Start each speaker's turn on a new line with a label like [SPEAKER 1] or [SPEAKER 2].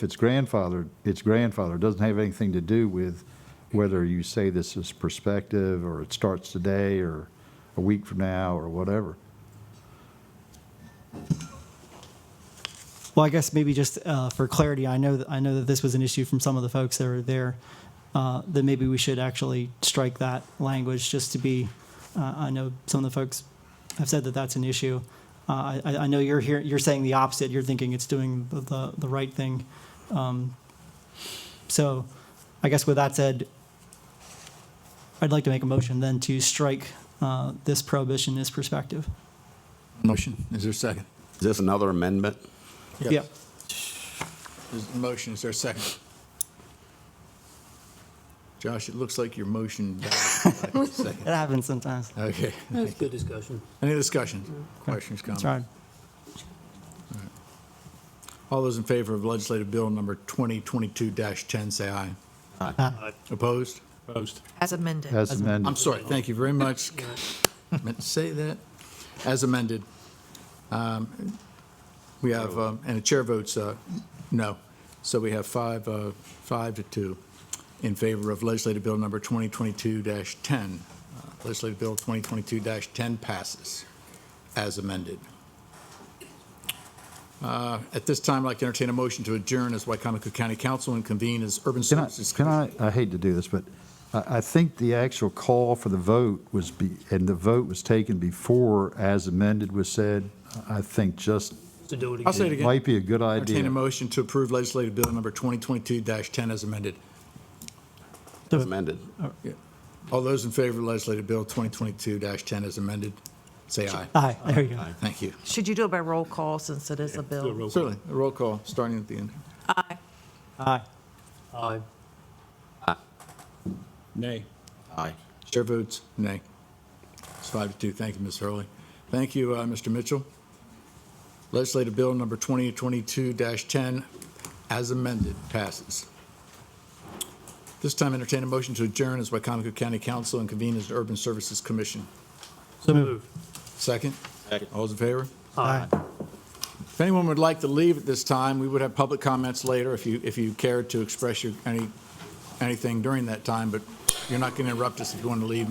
[SPEAKER 1] If it's grandfathered, it's grandfathered. It Doesn't have anything to do with whether you say this is prospective, or it starts today, or a week from now, or whatever.
[SPEAKER 2] Well, I guess maybe just uh, for clarity, I know that I know that this was an issue from some of the folks that were there. Uh, that maybe we should actually strike that language just to be. Uh, I know some of the folks have said that that's an issue. Uh, I, I know you're here. You're saying the opposite. You're thinking it's doing the the, the right thing. Um, so, I guess with that said, I'd like to make a motion then to strike uh, this prohibition is perspective.
[SPEAKER 3] Motion, is there a second?
[SPEAKER 4] Is this another amendment?
[SPEAKER 2] Yep.
[SPEAKER 3] There's a motion, is there a second? Josh, it looks like your motion died. by a
[SPEAKER 2] It
[SPEAKER 3] second.
[SPEAKER 2] happens sometimes.
[SPEAKER 3] Okay.
[SPEAKER 5] That's good discussion.
[SPEAKER 3] Any discussion, questions,
[SPEAKER 2] That's
[SPEAKER 3] comments?
[SPEAKER 2] right.
[SPEAKER 3] All those in favor of legislative bill number 2022-10, say aye.
[SPEAKER 2] Aye.
[SPEAKER 3] Opposed?
[SPEAKER 6] As amended.
[SPEAKER 1] As amended,
[SPEAKER 3] I'm sorry, thank you very much. Meant to say that. As amended. Um, We have, um, and the chair votes uh, no. So we have five, uh, five to two in favor of legislative bill number 2022-10. Uh, Legislative bill 2022-10 passes as amended. Uh, At this time, I'd like to entertain a motion to adjourn as Wycomico County Council and convene as Urban
[SPEAKER 1] Can I,
[SPEAKER 3] Services.
[SPEAKER 1] can I, I hate to do this, but I, I think the actual call for the vote was be, and the vote was taken before as amended was said. I think just
[SPEAKER 5] To do it
[SPEAKER 3] I'll say it
[SPEAKER 5] again.
[SPEAKER 3] again.
[SPEAKER 1] might be a good
[SPEAKER 3] Entertain a
[SPEAKER 1] idea.
[SPEAKER 3] motion to approve legislative bill number 2022-10 as amended.
[SPEAKER 4] As amended.
[SPEAKER 3] All those in favor of legislative bill 2022-10 as amended, say aye.
[SPEAKER 2] Aye. There you go.
[SPEAKER 3] Thank you.
[SPEAKER 6] Should you do it by roll call since it is a bill?
[SPEAKER 3] Certainly, a roll call, starting at the end.
[SPEAKER 2] Aye.
[SPEAKER 5] Aye.
[SPEAKER 3] Nay.
[SPEAKER 4] Aye.
[SPEAKER 3] Chair votes nay. It's five to two. Thank you, Ms. Hurley. Thank you, uh, Mr. Mitchell. Legislative bill number 2022-10 as amended passes. This time entertain a motion to adjourn as Wycomico County Council and convene as the Urban Services Commission.
[SPEAKER 5] So moved.
[SPEAKER 3] Second?
[SPEAKER 4] Second.
[SPEAKER 3] All those in favor?
[SPEAKER 5] Aye.
[SPEAKER 3] If anyone would like to leave at this time, we would have public comments later if you, if you cared to express your, any, anything during that time, but you're not going to interrupt us if you want to leave